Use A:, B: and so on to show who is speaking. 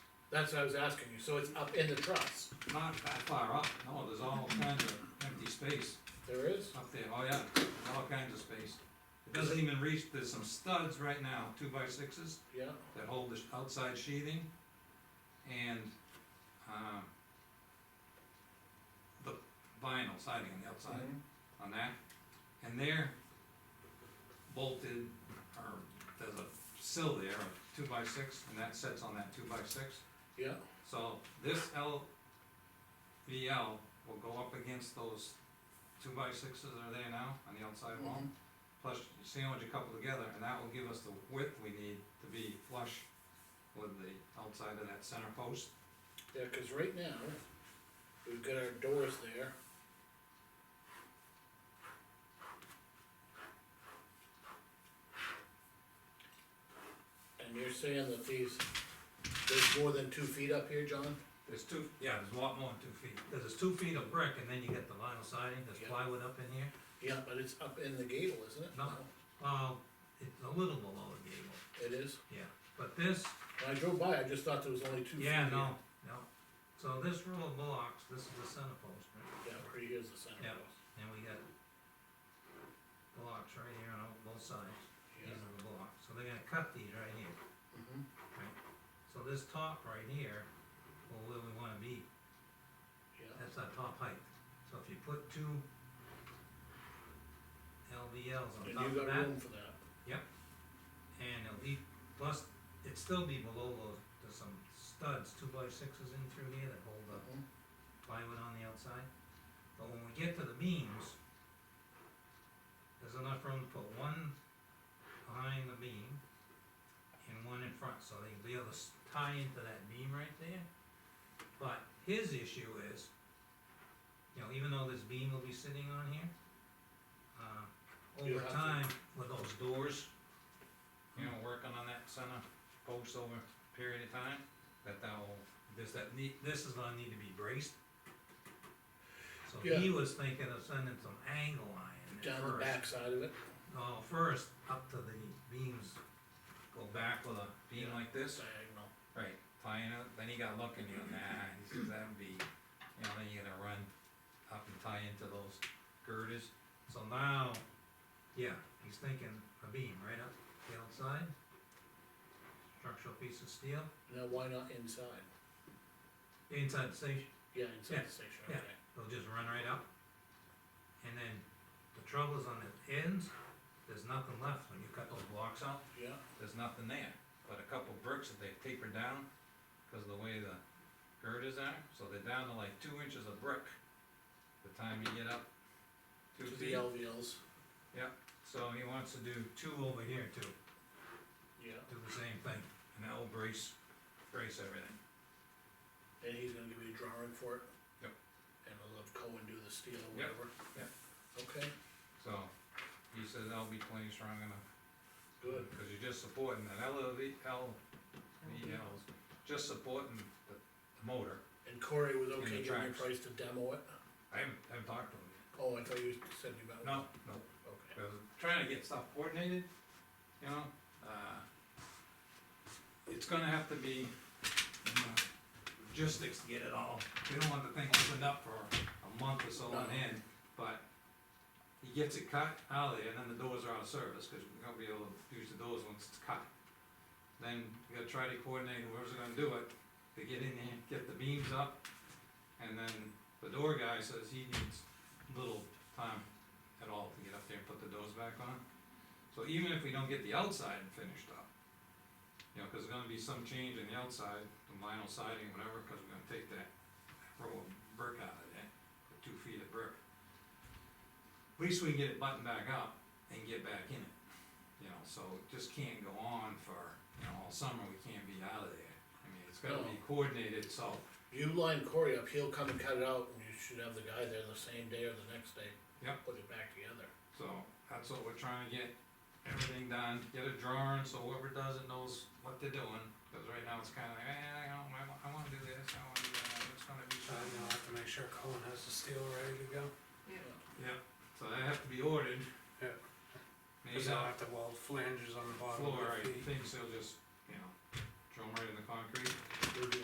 A: That's what I was asking you, so it's up in the truss,
B: Not that far up, no, there's all kinds of empty space
A: there is?
B: up there, oh yeah, there's all kinds of space. It doesn't even reach, there's some studs right now, two by sixes,
A: Yeah,
B: that hold the sh- outside sheathing, and, um, the vinyl siding on the outside, on that, and they're bolted, or there's a sill there, a two by six, and that sets on that two by six.
A: yeah,
B: So this LVL will go up against those two by sixes that are there now on the outside wall.
A: Mm-hmm.
B: Plus you sandwich a couple together and that will give us the width we need to be flush with the outside of that center post.
A: yeah, cause right now, we've got our doors there. And you're saying that these, there's more than two feet up here, John?
B: There's two, yeah, there's a lot more than two feet, 'cause there's two feet of brick and then you get the vinyl siding, there's
A: Yeah.
B: plywood up in here.
A: Yeah, but it's up in the gable, isn't it?
B: No. Uh, it's a little below the gable,
A: It is,
B: yeah, but this,
A: when I drove by, I just thought there was only two feet.
B: yeah,
A: here.
B: no, no. So this row of blocks, this is the center post, right?
A: Yeah, right here's the center
B: Yeah.
A: post,
B: And we got blocks right here on all- both sides, these
A: yeah,
B: are the blocks, so they're gonna cut these right here.
A: mhm,
B: So this top right here, well, where we wanna be,
A: yeah,
B: that's our top height. So if you put two LVLs on
A: and
B: top
A: you
B: of
A: got
B: that,
A: room for that,
B: and it'll be, plus, it'd still be below those, there's some studs, two by sixes in through here that hold up
A: mhm,
B: plywood on the outside. But when we get to the beams, there's enough room to put one behind the beam and one in front, so they'll be able to s- tie into that beam right there. But his issue is, you know, even though this beam will be sitting on here, uh,
A: You
B: over
A: have to-
B: time, with those doors, you know, working on that center post over a period of time, that that'll, this, that need, this is gonna need to be braced. So he was thinking of sending some angle iron at
A: down the
B: first.
A: back side of it,
B: No, first, up to the beams, go back with a beam
A: Yeah.
B: like this,
A: diagonal.
B: right, tying it, then he got looking, you know, nah, he says that would be, you know, then you're gonna run up and tie into those girders. So now, yeah, he's thinking a beam right up the outside, structural piece of steel,
A: Now, why not inside?
B: inside the station.
A: Yeah, inside
B: Yeah,
A: the station,
B: yeah.
A: okay.
B: They'll just run right up. And then the trouble is on the ends, there's nothing left. When you cut those blocks out,
A: Yeah,
B: there's nothing there. But a couple bricks that they've tapered down, cause of the way the girders are, so they're down to like two inches of brick. The time you get up two
A: to the
B: feet,
A: LVLs,
B: so he wants to do two over here too,
A: yeah,
B: do the same thing, and that will brace, brace everything.
A: and he's gonna give me a drawing for it.
B: Yep.
A: And I'll have Cohen do the steel or
B: Yep,
A: whatever.
B: yep.
A: Okay,
B: So, he says that'll be plenty strong enough.
A: good,
B: Cause you're just supporting an LV, LVLs, E just supporting the the motor.
A: and Corey was
B: the
A: okay giving me a
B: tracks.
A: price to demo it?
B: I haven't, I haven't talked to him yet.
A: Oh, I thought you said you about.
B: No, no,
A: Okay,
B: I was trying to get stuff coordinated, you know, uh, it's gonna have to be, you know, logistics to get it all. We don't want the thing opened up for a month or so on
A: No.
B: end, but he gets it cut out of there, and then the doors are out of service, cause we're gonna be able to use the doors once it's cut. Then you gotta try to coordinate whoever's gonna do it, to get in there, get the beams up, and then the door guy says he needs little time at all to get up there and put the doors back on. So even if we don't get the outside finished up, you know, cause there's gonna be some change in the outside, the vinyl siding, whatever, cause we're gonna take that row of brick out of there, the two feet of brick. At least we can get it buttoned back up and get back in it, you know, so it just can't go on for, you know, all summer, we can't be out of there. I mean, it's gotta be
A: No.
B: coordinated, so
A: you line Corey up, he'll come and cut it out, and you should have the guy there the same day or the next day.
B: Yep.
A: Put it back together.
B: So that's what we're trying to get everything done, get a drawing, so whoever does it knows what they're doing. Cause right now it's kinda like, eh, I don't, I wa- I wanna do this, I wanna do that, it's gonna be
C: Uh, you'll
B: done.
C: have to make sure Colin has the steel ready to go,
B: Yep, so they have to be ordered.
C: Yeah.
B: Maybe
C: cause they'll
B: the
C: have to weld flanges on the bottom
B: floor,
C: of
B: I
C: the feet.
B: think they'll just, you know, drill 'em right in the concrete.
A: We'll do